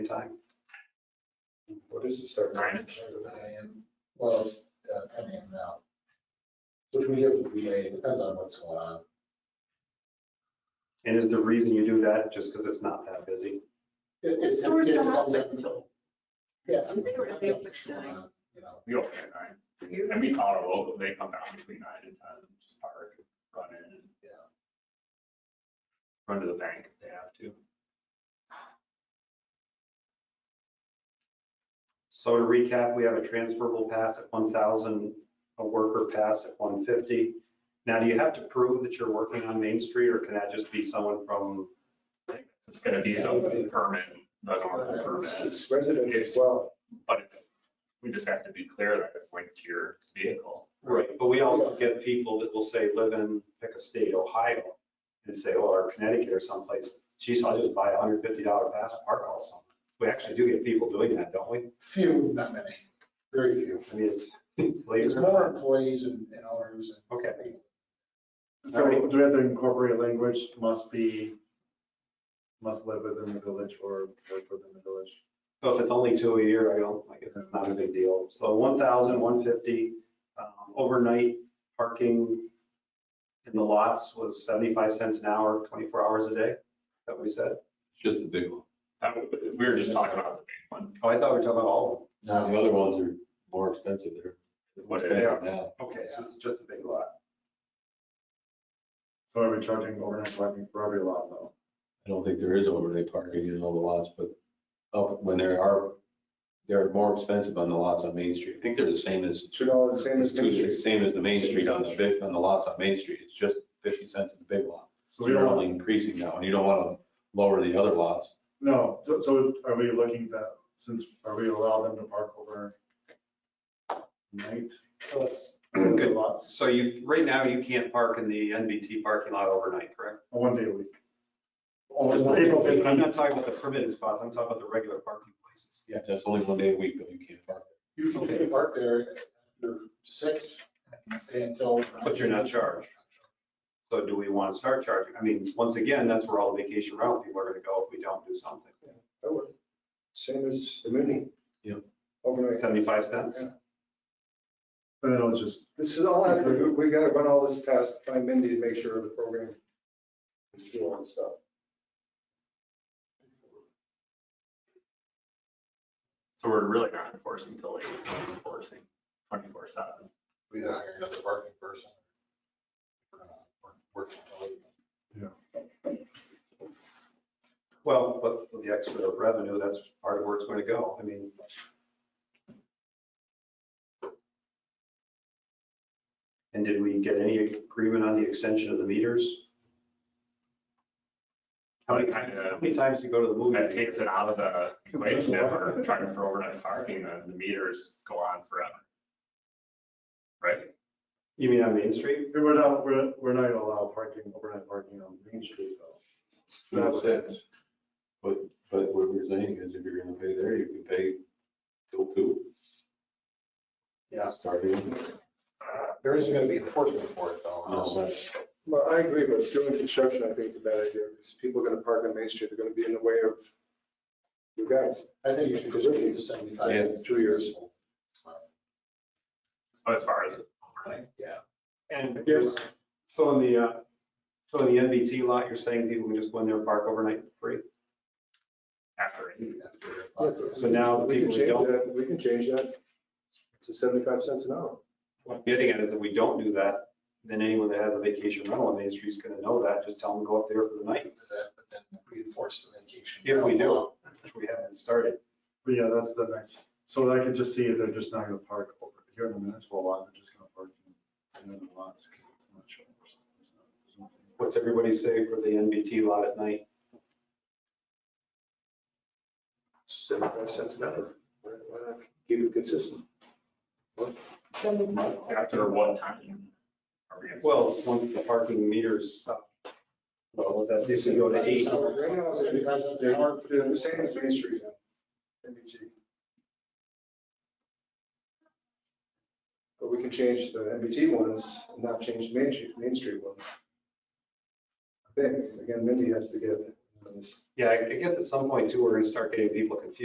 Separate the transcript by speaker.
Speaker 1: time.
Speaker 2: What is the start time?
Speaker 3: Nine.
Speaker 4: AM. Well, it's uh, ten AM now. Which we have to delay, it depends on what's going on.
Speaker 1: And is the reason you do that just because it's not that busy?
Speaker 4: It-
Speaker 3: The
Speaker 4: it-
Speaker 3: stores
Speaker 4: it
Speaker 3: don't
Speaker 4: depends
Speaker 3: open
Speaker 4: on-
Speaker 3: until,
Speaker 4: Yeah.
Speaker 3: I think we're gonna be open
Speaker 4: What's
Speaker 3: at
Speaker 4: going
Speaker 3: nine.
Speaker 4: on, You know,
Speaker 3: you
Speaker 5: We open at nine, and we call our local, they come down between nine and ten, just park, run in, and
Speaker 4: yeah.
Speaker 5: run to the bank if they have to.
Speaker 1: So to recap, we have a transferable pass at one thousand, a worker pass at one fifty. Now, do you have to prove that you're working on Main Street or can that just be someone from,
Speaker 5: It's gonna be a permit, a normal permit,
Speaker 2: It's residents as well.
Speaker 5: but it's, we just have to be clear that it's linked to your vehicle.
Speaker 1: right, but we also get people that will say, live in, pick a state, Ohio, and say, well, or Connecticut or someplace, geez, I'll just buy a hundred fifty dollar pass and park all summer. We actually do get people doing that, don't we?
Speaker 4: Few, not many, very few.
Speaker 1: I mean, it's,
Speaker 4: There's more employees and and owners and.
Speaker 1: okay,
Speaker 2: So do we have to incorporate language, must be, must live within the village or work within the village?
Speaker 1: so if it's only two a year, I don't, I guess it's not a big deal. So 1,000, 150, um, overnight parking in the lots was 75 cents an hour, 24 hours a day, that we said.
Speaker 6: It's just the big one.
Speaker 5: That, w- we were just talking about the big one,
Speaker 1: Oh, I thought we were talking about all
Speaker 6: Now, the other ones are more expensive. They're more
Speaker 5: what it is.
Speaker 6: expensive now.
Speaker 1: of them. Okay, so it's just a big lot.
Speaker 2: So are we charging overnight parking for every lot though?
Speaker 6: I don't think there is overnight parking in all the lots, but up when there are, they're more expensive on the lots on Main Street. I think they're the same as,
Speaker 2: Should all the same as Main Street.
Speaker 6: same as the Main Street on the big, on the lots on Main Street. It's just 50 cents in the big lot.
Speaker 2: So
Speaker 6: So
Speaker 2: we
Speaker 6: you're
Speaker 2: don't, want-
Speaker 6: only increasing that one. You don't want to lower the other lots.
Speaker 2: no, so- so are we looking that, since, are we allow them to park over night?
Speaker 1: That's
Speaker 2: Good
Speaker 1: good.
Speaker 2: lots,
Speaker 1: So you, right now, you can't park in the NBT parking lot overnight, correct?
Speaker 2: one day a week.
Speaker 4: Only one-
Speaker 2: April
Speaker 1: I'm
Speaker 2: 15th.
Speaker 1: not talking about the permitted spots, I'm talking about the regular parking places.
Speaker 6: Yeah, that's only one day a week though. You can't park.
Speaker 4: Usually they park there, you're sick, and stay until.
Speaker 1: But you're not charged. So do we want to start charging? I mean, once again, that's where all the vacation rental people are going to go if we don't do something.
Speaker 2: I
Speaker 7: Oh,
Speaker 2: would. Same as the movie.
Speaker 6: Yeah.
Speaker 2: Overnight.
Speaker 1: 75 cents?
Speaker 2: And it'll just,
Speaker 7: This is all, after- we gotta run all this past by Mindy to make sure the program is doing stuff.
Speaker 5: So we're really not enforcing till eight, we're enforcing twenty-four seven.
Speaker 4: We hire another parking person. We're not Working until eight.
Speaker 1: Well, but with the extra revenue, that's part of where it's going to go. I mean, and did we get any agreement on the extension of the meters? How many times, how many times do you go to the
Speaker 5: That
Speaker 1: movie?
Speaker 5: takes it out of the equation if we're trying for overnight parking, then the meters go on forever. Right?
Speaker 1: You mean on Main Street?
Speaker 2: we're not, we're, we're not gonna allow parking, overnight parking on Main Street though.
Speaker 6: That's it. But, but what we're saying is if you're going to pay there, you can pay till two.
Speaker 4: Yeah.
Speaker 6: Starting.
Speaker 4: There isn't gonna be enforcement for it though.
Speaker 1: Oh,
Speaker 4: unless-
Speaker 7: Well, I agree, but doing construction, I think is a bad idea, because people are gonna park on Main Street, they're gonna be in the way of you guys.
Speaker 4: I think you should just leave the seventy-five, it's two years.
Speaker 5: As far as overnight,
Speaker 4: Yeah.
Speaker 1: And there's, so in the, uh, so in the NBT lot, you're saying people can just go in there and park overnight for free?
Speaker 5: after eight.
Speaker 1: So now the
Speaker 7: We can
Speaker 1: people who
Speaker 7: change
Speaker 1: don't,
Speaker 7: that, we can change that to seventy-five cents an hour.
Speaker 1: what I'm getting at is if we don't do that, then anyone that has a vacation rental on Main Street's gonna know that, just tell them to go up there for the night,
Speaker 4: But then we enforce the vacation.
Speaker 1: if we do, which we haven't started.
Speaker 2: But yeah, that's the next, so I could just see they're just not gonna park over here in the municipal lot, they're just gonna park in the other lots. 'cause it's not sure.
Speaker 1: What's everybody say for the NBT lot at night?
Speaker 7: Seventy-five cents an hour. Why- why not Keep it consistent.
Speaker 5: After what time? are we gonna-
Speaker 1: Well, once the parking meters stop. Well, would that, this would go to eight.
Speaker 7: Right now, it's
Speaker 4: Seventy-five cents an hour.
Speaker 7: they're the same as Main Street. now. NBG. But we can change the MBT ones, and not change the Main Street, Main Street ones. I think, again, Mindy has to get
Speaker 2: This-
Speaker 1: Yeah, I I guess at some point too, we're gonna start getting people confused